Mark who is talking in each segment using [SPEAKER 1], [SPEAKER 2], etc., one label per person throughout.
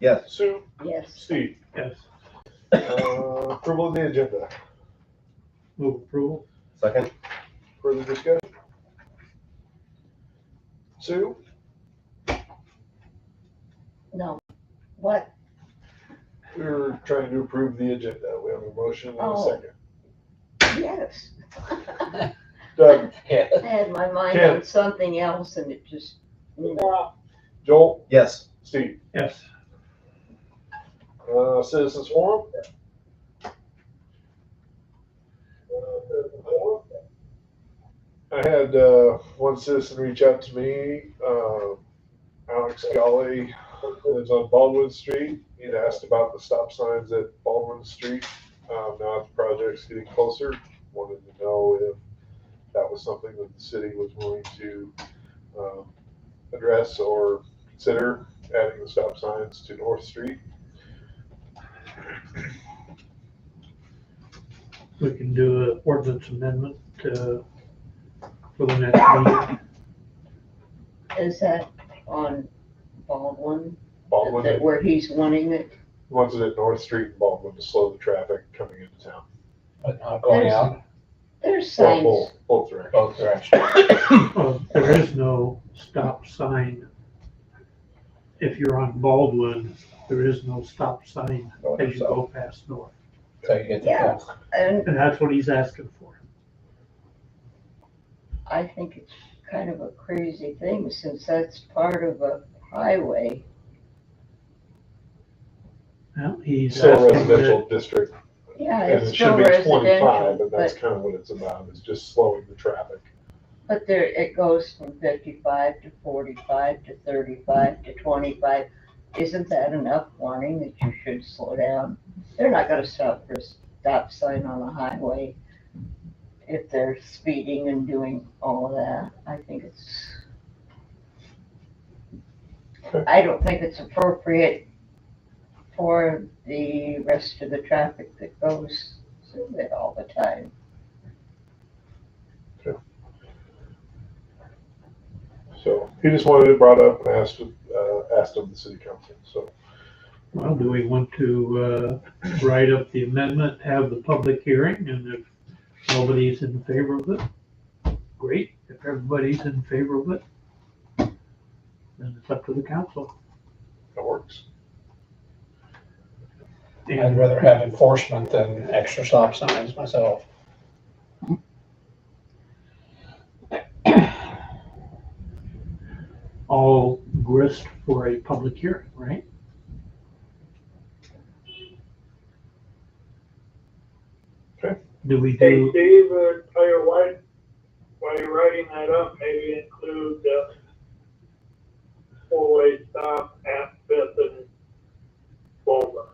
[SPEAKER 1] Yes.
[SPEAKER 2] Sue,
[SPEAKER 3] Yes.
[SPEAKER 2] Steve.
[SPEAKER 4] Yes.
[SPEAKER 2] Uh, Approval of the agenda.
[SPEAKER 4] Move approval?
[SPEAKER 1] Second?
[SPEAKER 2] Further discussion? Sue?
[SPEAKER 3] No. What?
[SPEAKER 2] We were trying to approve the agenda. We have a motion and a
[SPEAKER 3] Oh.
[SPEAKER 2] second.
[SPEAKER 3] Yes.
[SPEAKER 2] Doug,
[SPEAKER 3] I had my mind on something else and it just,
[SPEAKER 2] Joel,
[SPEAKER 1] Yes.
[SPEAKER 2] Steve,
[SPEAKER 4] Yes.
[SPEAKER 2] uh, citizens forum? Uh, I had, uh, one citizen reach out to me, uh, Alex Golly, lives on Baldwin Street. He'd asked about the stop signs at Baldwin Street. Um, now that the project's getting closer, wanted to know if that was something that the city was willing to, um, address or consider adding the stop signs to North Street.
[SPEAKER 4] We can do an ordinance amendment, uh, for the next meeting.
[SPEAKER 3] is that on Baldwin? That-
[SPEAKER 2] Baldwin
[SPEAKER 3] Where he's wanting it?
[SPEAKER 2] runs it at North Street in Baldwin to slow the traffic coming into town.
[SPEAKER 5] But not
[SPEAKER 2] Oh,
[SPEAKER 5] going
[SPEAKER 3] There's-
[SPEAKER 5] out
[SPEAKER 3] There's
[SPEAKER 2] Well,
[SPEAKER 3] signs.
[SPEAKER 2] both, both directions.
[SPEAKER 5] both directions.
[SPEAKER 4] Uh, There is no stop sign. If you're on Baldwin, there is no stop sign
[SPEAKER 1] Going
[SPEAKER 4] as you
[SPEAKER 1] south.
[SPEAKER 4] go past north.
[SPEAKER 5] So you get the
[SPEAKER 3] Yeah.
[SPEAKER 5] full-
[SPEAKER 3] And
[SPEAKER 4] And that's what he's asking for.
[SPEAKER 3] I think it's kind of a crazy thing since that's part of a highway.
[SPEAKER 4] Now, he's
[SPEAKER 2] Still a
[SPEAKER 4] asking that,
[SPEAKER 2] residential district,
[SPEAKER 3] Yeah,
[SPEAKER 2] and
[SPEAKER 3] it's
[SPEAKER 2] it should
[SPEAKER 3] still
[SPEAKER 2] be twenty-five,
[SPEAKER 3] residential,
[SPEAKER 2] and that's
[SPEAKER 3] but,
[SPEAKER 2] kind of what it's about, is just slowing the traffic.
[SPEAKER 3] but there, it goes from fifty-five to forty-five to thirty-five to twenty-five. Isn't that enough warning that you should slow down? They're not gonna stop for a stop sign on a highway if they're speeding and doing all of that. I think it's, I don't think it's appropriate for the rest of the traffic that goes through it all the time.
[SPEAKER 2] So he just wanted it brought up and asked, uh, asked of the city council, so.
[SPEAKER 4] well, do we want to, uh, write up the amendment, have the public hearing, and if nobody's in favor of it, great. If everybody's in favor of it, then it's up to the council.
[SPEAKER 2] That works.
[SPEAKER 5] I'd rather have enforcement than extra stop signs myself.
[SPEAKER 4] all grist for a public hearing, right?
[SPEAKER 2] Okay.
[SPEAKER 4] Do we
[SPEAKER 6] Hey,
[SPEAKER 4] do,
[SPEAKER 6] Steve, uh, tell you what, while you're writing that up, maybe include the four-way stop at Fifth and Bowman.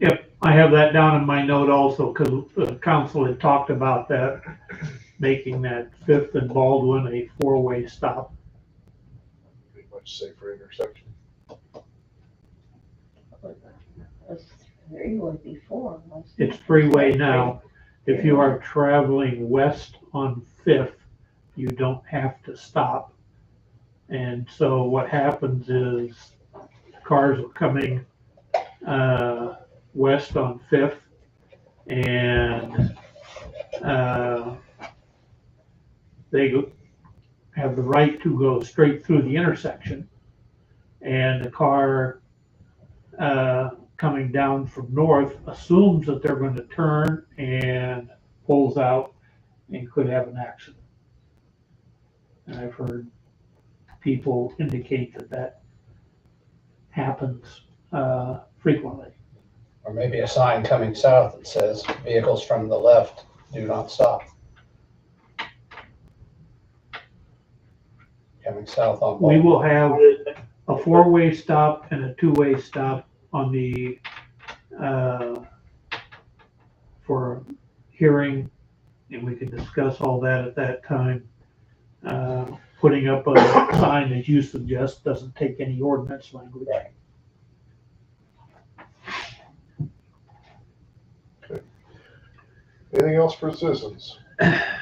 [SPEAKER 4] yep, I have that down in my note also, because the council had talked about that, making that Fifth and Baldwin a four-way stop.
[SPEAKER 2] Pretty much safer intersection.
[SPEAKER 3] It was uh, three or before, was it?
[SPEAKER 4] It's freeway now. If you are traveling west on Fifth, you don't have to stop. And so what happens is cars are coming, uh, west on Fifth and, uh, they go- have the right to go straight through the intersection. And the car, uh, coming down from north assumes that they're going to turn and pulls out and could have an accident. And I've heard people indicate that that happens uh, frequently.
[SPEAKER 5] Or maybe a sign coming south that says vehicles from the left do not stop. Coming south on
[SPEAKER 4] We
[SPEAKER 5] Baldwin.
[SPEAKER 4] will have a four-way stop and a two-way stop on the, uh, for hearing, and we can discuss all that at that time. Uh, Putting up a sign as you suggest doesn't take any ordinance language.
[SPEAKER 5] Right.
[SPEAKER 2] Anything else for citizens?
[SPEAKER 4] uh,